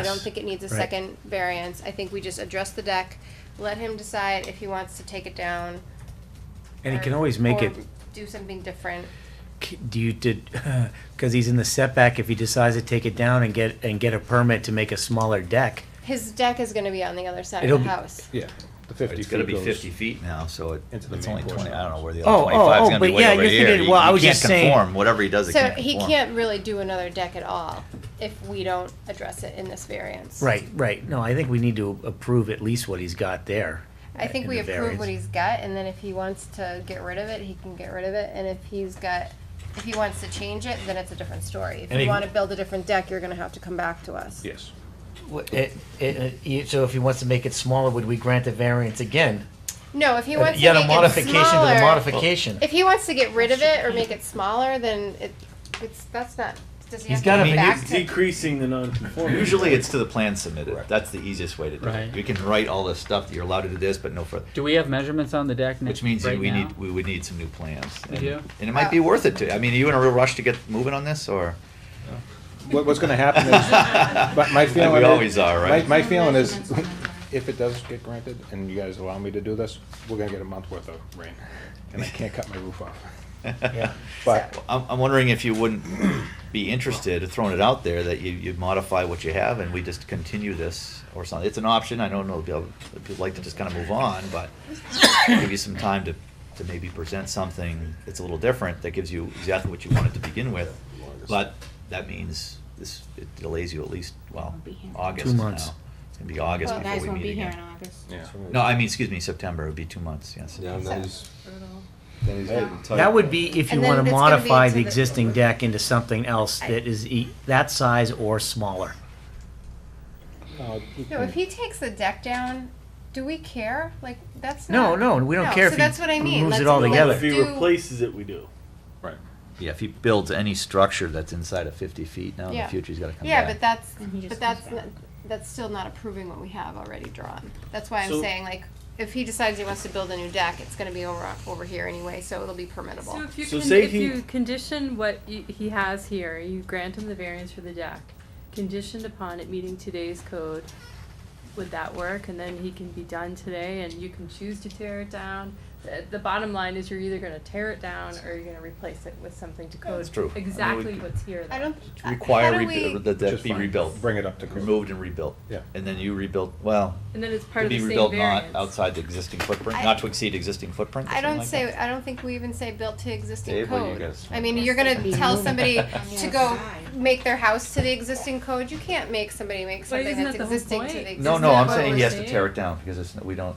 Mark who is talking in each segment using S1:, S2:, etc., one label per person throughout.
S1: I don't think it needs a
S2: Right.
S1: second variance. I think we just address the deck, let him decide if he wants to take it down.
S2: And he
S1: or-
S2: can always make
S1: or
S2: it,
S1: Do something different.
S2: c- do you, did, because he's in the setback, if he decides to take it down and get, and get a permit to make a smaller deck,
S1: His deck is gonna be on the other side
S2: It'll
S1: of the
S2: be-
S1: house.
S3: Yeah, the fifty
S4: It's gonna
S3: feet
S4: be
S3: goes-
S4: fifty feet now, so it,
S3: Into the
S4: it's
S3: main
S4: only
S3: portion
S4: twenty,
S3: of
S4: I
S3: the
S4: don't know
S3: house.
S4: where the
S2: Oh,
S4: other twenty-five
S2: oh,
S4: is
S2: oh,
S4: gonna
S2: but
S4: be way
S2: yeah,
S4: over
S2: you're
S4: here.
S2: thinking-
S4: You-
S2: well, I
S4: you
S2: was
S4: can't
S2: just saying-
S4: conform. Whatever he does, it
S1: So
S4: can't
S1: he
S4: conform.
S1: can't really do another deck at all if we don't address it in this variance.
S2: Right, right. No, I think we need to approve at least what he's got there. uh,
S1: I think
S2: in
S1: we
S2: the
S1: approve what
S2: variance.
S1: he's got, and then if he wants to get rid of it, he can get rid of it, and if he's got, if he wants to change it, then it's a different story.
S2: And
S1: If you
S2: he-
S1: wanna build a different deck, you're gonna have to come back to us.
S3: Yes.
S2: Wha- it- it- it- you- So if he wants to make it smaller, would we grant a variance again?
S1: No, if he wants to
S2: Yet a
S1: make it
S2: modification to the
S1: smaller,
S2: modification.
S1: if he wants to get rid of it or make it smaller, then it, it's, that's not, does he
S2: He's
S1: have
S2: gotta
S1: to
S2: be-
S1: go back
S5: It's
S1: to?
S5: decreasing the non-conformity.
S4: Usually it's to the plan submitted.
S3: Correct.
S4: That's the easiest way to do
S5: Right.
S4: it. You can write all this stuff, that you're allowed to do this, but no further.
S6: Do we have measurements on the deck now?
S4: Which means
S6: right
S4: we
S6: now?
S4: need, we would need some new plans.
S6: We
S4: And-
S6: do?
S4: And it might be worth it to, I mean, are you in a real rush to get moving on this, or?
S3: What, what's gonna happen is, but my
S4: Like
S3: feeling
S4: we
S3: is-
S4: always are, right?
S3: My, my feeling is, if it does get granted, and you guys allow me to do this, we're gonna get a month worth of rain, and I can't cut my roof off.
S2: Yeah.
S3: But,
S4: I'm, I'm wondering if you wouldn't be interested, in throwing it out there, that you, you modify what you have and we just continue this or something. It's an option, I don't know, if you'll- if you'd like to just kind of move on, but give you some time to, to maybe present something that's a little different, that gives you exactly what you wanted to begin with. But that means this, it delays you at least, well,
S7: Won't be here.
S4: August
S2: Two
S4: now.
S2: months.
S4: It's gonna be August
S7: Well, guys
S4: before we
S7: won't be
S4: meet
S7: here in
S4: again.
S7: August.
S3: yeah.
S4: No, I mean, excuse me, September, it would be two months, yes.
S8: Yeah, and
S7: So-
S8: then he's, then he's
S3: Hey,
S8: getting tight.
S2: That would be if you
S1: And then
S2: want
S1: it's
S2: to
S1: gonna be
S2: modify
S1: to
S2: the
S1: the-
S2: existing deck into something else that is e- that size or smaller.
S3: No, you
S1: No,
S3: can-
S1: if he takes the deck down, do we care? Like, that's
S2: No,
S1: not.
S2: no, we don't care
S1: So
S2: if he
S1: that's what I mean.
S2: moves
S1: Let's-
S2: it all
S1: let's
S2: together.
S1: do-
S5: If he replaces it, we do.
S3: Right.
S4: Yeah, if he builds any structure that's inside of fifty feet, now in the
S1: Yeah.
S4: future, he's gotta come back.
S1: Yeah, but that's,
S7: And he
S1: but
S7: just comes
S1: that's,
S7: back.
S1: not- that's still not approving what we have already drawn. That's why I'm
S5: So-
S1: saying, like, if he decides he wants to build a new deck, it's gonna be over, over here anyway, so it'll be
S9: So
S1: permittable.
S9: if you,
S5: So
S9: con-
S5: say
S9: if
S5: he-
S9: you condition what you, he has here, you grant him the variance for the deck, conditioned upon it meeting today's code, would that work? And then he can be done today and you can choose to tear it down. The, the bottom line is you're either gonna tear it down or you're gonna replace it with something to code
S4: That's true. I mean, we
S9: exactly
S4: could-
S9: what's here.
S1: I
S9: though.
S1: don't. uh,
S4: require
S1: how do
S4: rebu-
S1: we-
S4: that
S3: Which
S4: that
S3: is
S4: be
S3: fine.
S4: rebuilt,
S3: Bring it up to code.
S4: removed and rebuilt.
S3: Yeah.
S4: And then you rebuild, well,
S9: And then it's part
S4: to
S9: of the
S4: be
S9: same
S4: rebuilt not
S9: variance.
S4: outside the existing footprint,
S1: I-
S4: not to exceed existing footprint. or
S1: I don't
S4: something
S1: say,
S4: like
S1: I don't think we even say built to existing
S4: Dave, what do you
S1: code.
S4: guys-
S1: I mean,
S7: Yes,
S1: you're
S7: they
S1: gonna
S7: could
S1: tell
S7: move it
S1: somebody
S7: on the
S1: to
S7: other
S1: go
S7: side.
S1: make their house to the existing code. You can't make somebody make
S9: But
S1: something
S9: isn't
S1: that's
S9: that the whole
S1: existing to
S9: point?
S1: the
S4: that.
S1: existing.
S4: No, no,
S9: Isn't
S4: I'm
S9: that
S4: saying
S9: what
S4: he
S9: we're
S4: has to
S9: saying?
S4: tear it down because it's, we don't.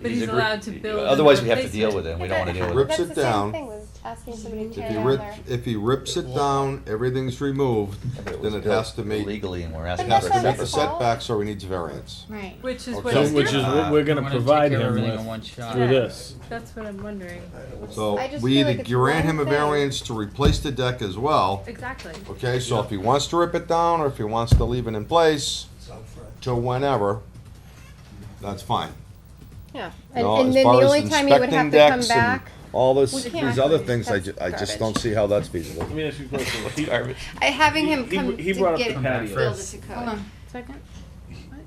S9: But he's
S4: agree-
S9: allowed to build and
S4: Otherwise, we have to
S9: replace
S4: deal
S9: it.
S4: with it, and we don't wanna deal with it.
S8: Rips
S1: That's
S8: it
S1: the same
S8: down.
S1: thing, was asking somebody to
S8: If
S1: tear
S8: he
S1: down
S8: rip,
S1: their-
S8: if he rips it down, everything's removed,
S4: If it was
S8: then it
S4: built
S8: has to meet,
S4: Legally, and we're
S8: it
S4: asking
S1: that's
S8: has
S4: for
S1: not
S8: to
S4: a
S8: meet
S1: his
S8: the
S4: separate.
S1: fault.
S8: setback, so he needs variance.
S7: Right.
S9: Which is what
S8: Okay.
S9: he's
S8: So
S9: doing.
S5: Which is what we're gonna
S6: We wanna take
S5: provide
S6: care of
S5: him
S6: everything in
S5: with
S6: one shot.
S5: through
S9: Yeah.
S5: this.
S9: That's what I'm wondering.
S8: So
S1: I just
S8: we
S1: feel like
S8: either
S1: it's
S8: grant
S1: one
S8: him a
S1: thing.
S8: variance to replace the deck as well,
S9: Exactly.
S8: okay, so if he wants to rip it down, or if he wants to leave it in place till whenever, that's fine.
S1: Yeah,
S8: You
S1: and,
S8: know,
S1: and
S8: as
S1: then
S8: far
S1: the
S8: as
S1: only time you would have
S8: inspecting
S1: to come
S8: decks and
S1: back,
S8: All this,
S1: We can't.
S8: these other things, I ju- I
S1: That's
S8: just
S1: garbage.
S8: don't see how that's feasible.
S5: Let me ask you a question. If he-
S4: Garbage.
S1: I- having
S5: He-
S1: him
S5: he
S1: come
S5: br- he
S1: to
S5: brought up
S1: get
S5: the
S1: build
S5: patio.
S1: it to
S7: Hold
S1: code.
S7: on, second.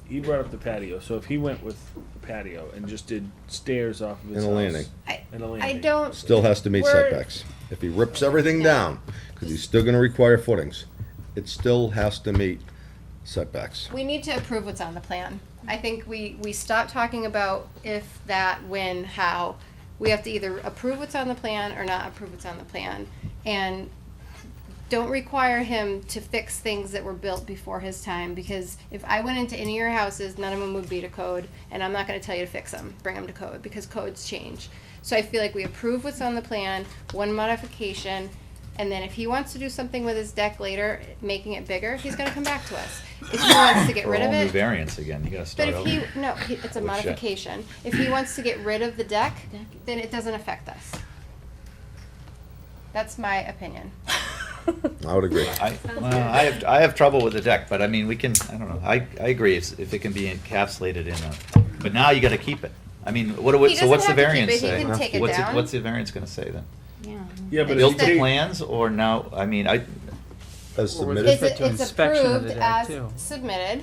S5: He brought up the patio, so if he went with the patio and just did stairs off of his
S8: And a
S5: house.
S8: landing.
S1: I,
S5: And a landing.
S1: I don't,
S8: Still has to meet
S1: We're-
S8: setbacks. If he rips everything down, because he's still gonna require footings, it still has to meet setbacks.
S1: we need to approve what's on the plan. I think we, we stop talking about if, that, when, how. We have to either approve what's on the plan or not approve what's on the plan. And don't require him to fix things that were built before his time, because if I went into any of your houses, none of them would be to code, and I'm not gonna tell you to fix them, bring them to code, because codes change. So I feel like we approve what's on the plan, one modification, and then if he wants to do something with his deck later, making it bigger, he's gonna come back to us. If he wants to get
S4: For a
S1: rid
S4: whole
S1: of
S4: new
S1: it,
S4: variance again, you gotta
S1: but
S4: start
S1: if
S4: over.
S1: he, no, he- it's a
S4: Which, uh,
S1: modification. If he wants to get rid of the deck, then it doesn't affect us. That's my opinion.
S8: I would agree.
S4: I, well, I have, I have trouble with the deck, but I mean, we can, I don't know, I, I agree, if, if it can be encapsulated in a, but now you gotta keep it. I mean, what, do we-
S1: He
S4: so what's the
S1: doesn't have to keep
S4: variance
S1: it, he
S4: say?
S1: can take it
S4: What's
S1: down.
S4: What's the variance gonna say then?
S7: Yeah.
S5: Yeah, but
S4: Built
S5: if
S4: to
S5: he,
S4: plans or now, I mean, I,
S8: As
S6: Or was
S8: submitted.
S6: it
S1: It's,
S6: subject to
S1: it's
S6: inspection of
S1: approved
S6: the deck,
S1: as
S6: too.
S1: submitted.